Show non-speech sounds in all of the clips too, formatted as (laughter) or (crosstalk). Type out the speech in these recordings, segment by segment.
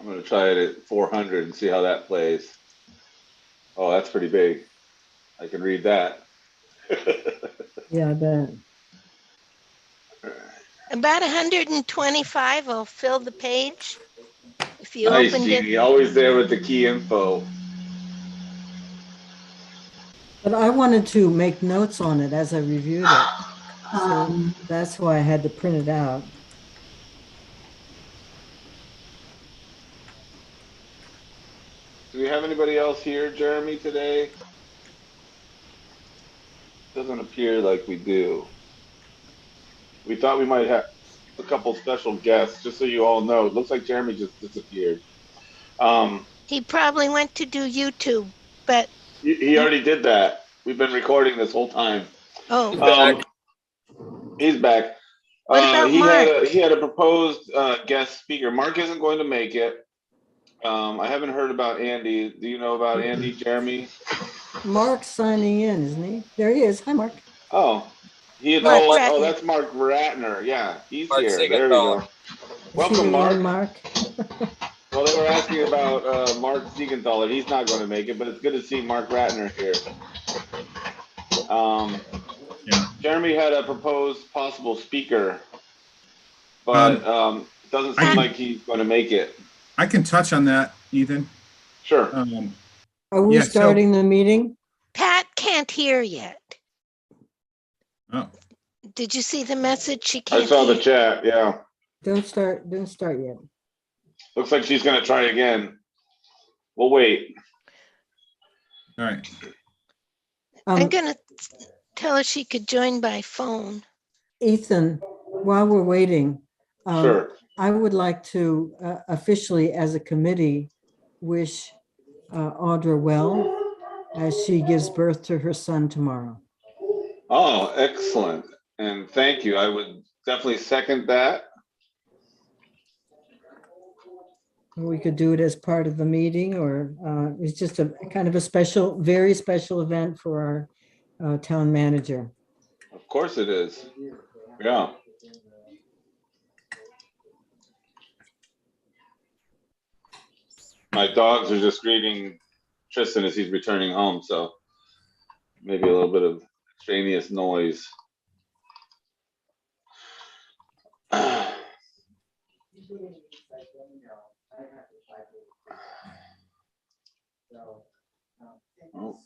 I'm gonna try it at four hundred and see how that plays. Oh, that's pretty big. I can read that. (laughs) Yeah, I bet. About hundred and twenty-five will fill the page. If you Nice, opened Jeannie, it, always there with the key info. But I wanted to make notes on it as I reviewed it. So that's why I had to print it out. Do we have anybody else here, Jeremy, today? Doesn't appear like we do. We thought we might have a couple special guests, just so you all know. It looks like Jeremy just disappeared. Um, he probably went to do YouTube, but, he, he already did that. We've been recording this whole time. oh, Um, he's back. What Uh, about he had Mark? a, he had a proposed uh, guest speaker. Mark isn't going to make it. Um, I haven't heard about Andy. Do you know about Andy, Jeremy? Mark's signing in, isn't he? There he is. Hi, Mark. Oh, he had, Mark oh, oh, Ratner. that's Mark Ratner. Yeah, he's Mark here. There we Siegenthaler. go. Welcome, Hi, Mark. Mark. Well, they were asking about uh, Mark Siegenthaler. He's not going to make it, but it's good to see Mark Ratner here. Um, Yeah. Jeremy had a proposed possible speaker, but um, it doesn't I- seem like he's going to make it. I can touch on that, Ethan. Sure. Um, Are we Yeah, so- starting the meeting? Pat can't hear yet. oh, Did you see the message? She I can't saw the hear. chat. Yeah. Don't start, don't start yet. Looks like she's going to try again. We'll wait. all right. I'm Um, gonna tell her she could join by phone. Ethan, while we're waiting, um, Sure. I would like to uh, officially, as a committee, wish uh, Audra well as she gives birth to her son tomorrow. Oh, excellent. And thank you. I would definitely second that. We could do it as part of the meeting or uh, it's just a kind of a special, very special event for our uh, town manager. Of course it is. Yeah. My dogs are just greeting Tristan as he's returning home, so maybe a little bit of extraneous noise. (laughs) Oh.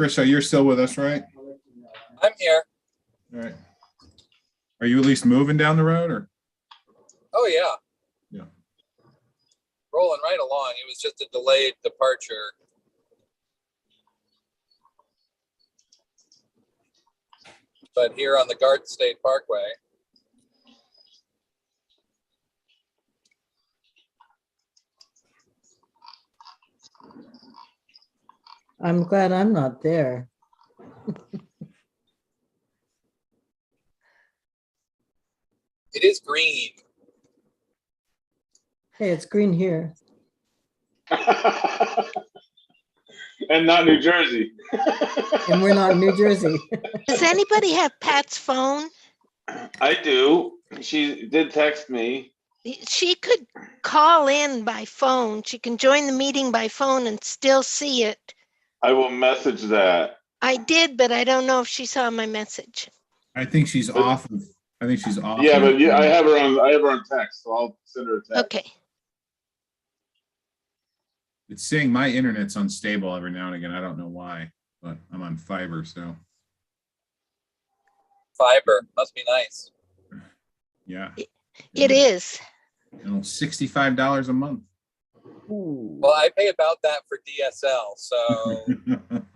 Krisha, you're still with us, right? I'm here. All right. Are you at least moving down the road or? Oh, yeah. Yeah. Rolling right along. It was just a delayed departure. But here on the Garden State Parkway. I'm glad I'm not there. It is green. Hey, it's green here. And not New Jersey. (laughs) And we're not in New Jersey. Does anybody have Pat's phone? I do. She did text me. She could call in by phone. She can join the meeting by phone and still see it. I will message that. I did, but I don't know if she saw my message. I think she's off of, I think she's off. Yeah, but (laughs) yeah, I have her on, I have her on text, so I'll send her a text. Okay. It's saying my internet's unstable every now and again. I don't know why, but I'm on fiber, so Fiber. Must be nice. yeah. It is. You know, Sixty-five (laughs) dollars a month. Well, I pay about that for DSL. So